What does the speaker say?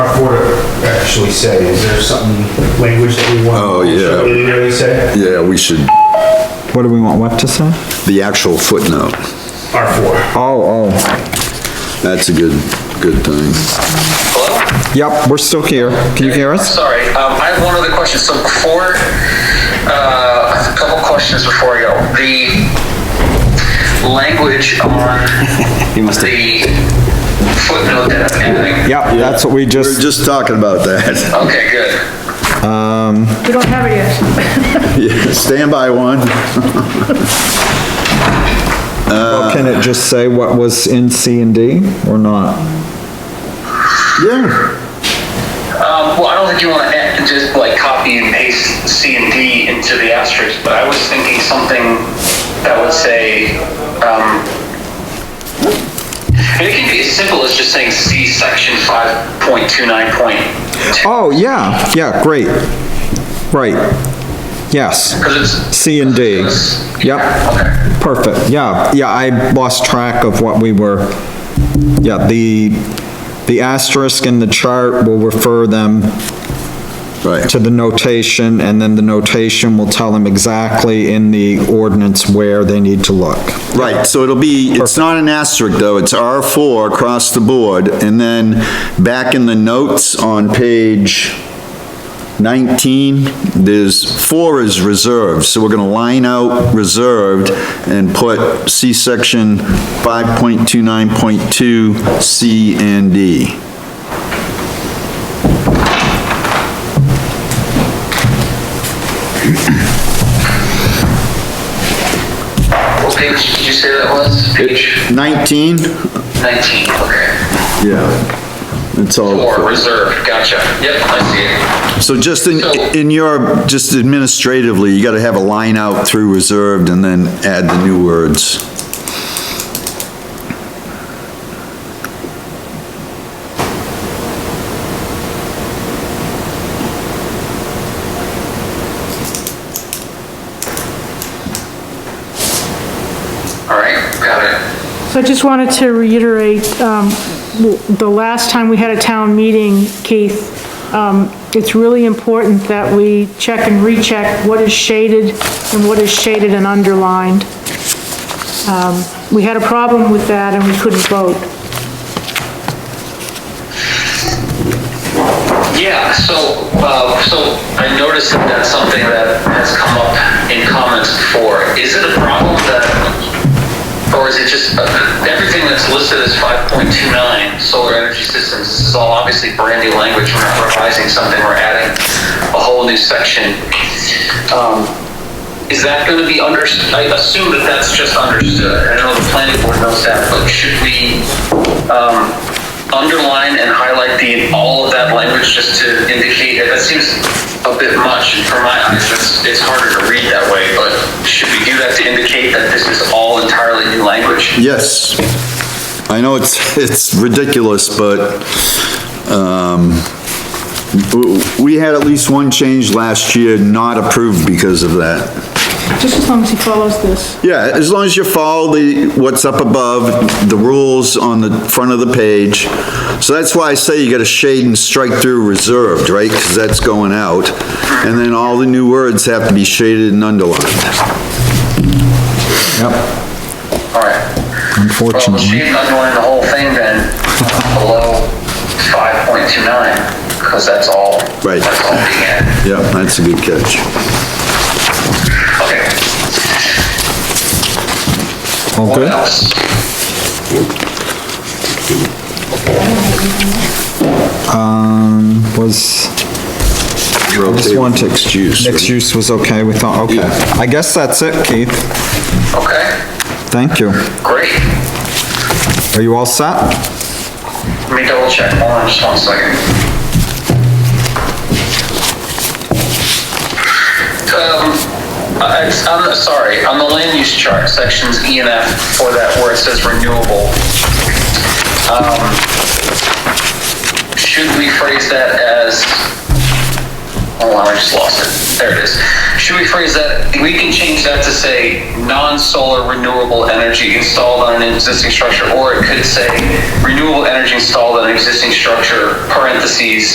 actually say? Is there something, language that we want? Oh, yeah. Really, really say? Yeah, we should, What do we want Web to say? the actual footnote, R four. Oh, oh, that's a good, good thing. Hello? yep, we're still here. Can you hear us? Sorry, um, I have one other question. So before, uh, a couple questions before I go. The language on the footnote that I'm adding. Yep, that's what we We We're just, just talking about that. Okay, good. We don't have it yet. Yeah, Stand by one. well, uh, can it just say what was in C and D or not? Yeah, Um, well, I don't think you want to just like copy and paste C and D into the asterisk, but I was thinking something that would say, um, and it can be as simple as just saying C section five point two nine point two. Oh, yeah, yeah, great. Right. Yes, Because it's. C and D. Yep, Okay. perfect, yeah, yeah, I lost track of what we were, yeah, the, the asterisk in the chart will refer them right, to the notation, and then the notation will tell them exactly in the ordinance where they need to look. right, so it'll be, it's not an asterisk though, it's R four across the board, and then back in the notes on page nineteen, there's, four is reserved, so we're gonna line out reserved and put C section five point two nine point two, C and D. What page did you say that was? Page Nineteen? nineteen, okay. Yeah, it's Oh, all. Or reserved, gotcha. Yep, I see it. So just in, in your, just administratively, you gotta have a line out through reserved and then add the new words. All right, got it. So I just wanted to reiterate, um, w- the last time we had a town meeting, Keith, um, it's really important that we check and recheck what is shaded and what is shaded and underlined. Um, We had a problem with that and we couldn't vote. Yeah, so, uh, so I noticed that that's something that has come up in comments before. Is it a problem that, or is it just, uh, everything that's listed as 5.29 solar energy systems, this is all obviously brand new language, we're not revising something, we're adding a whole new section. Um, Is that gonna be under, I assume that that's just understood, I know the planning board knows that, but should we, um, underline and highlight the, all of that language just to indicate, that seems a bit much for my eyes, it's, it's harder to read that way, but should we do that to indicate that this is all entirely new language? Yes. I know it's, it's ridiculous, but, um, w- we had at least one change last year not approved because of that. Just as long as he follows this. Yeah, as long as you follow the, what's up above, the rules on the front of the page. So that's why I say you gotta shade and strike through reserved, right? Because that's going out. And then all the new words have to be shaded and underlined. Yep, All right. Well, we'll unfortunately. shade and underline the whole thing then, uh, below 5.29, because that's all. Right. That's all we get. Yeah, that's a good catch. Okay. All What good? else? Um, was, just want to. Mixed use, right? Mixed use was okay, we thought, okay. Yeah. I guess that's it, Keith. Okay, Thank you. great. Are you all set? Let me double check, hold on just one second. Um, I, I'm sorry, on the land use chart, sections E and F for that where it says renewable. um, Should we phrase that as, hold on, I just lost it, there it is. Should we phrase that, we can change that to say, non-solar renewable energy installed on an existing structure, or it could say, renewable energy installed on an existing structure, parentheses,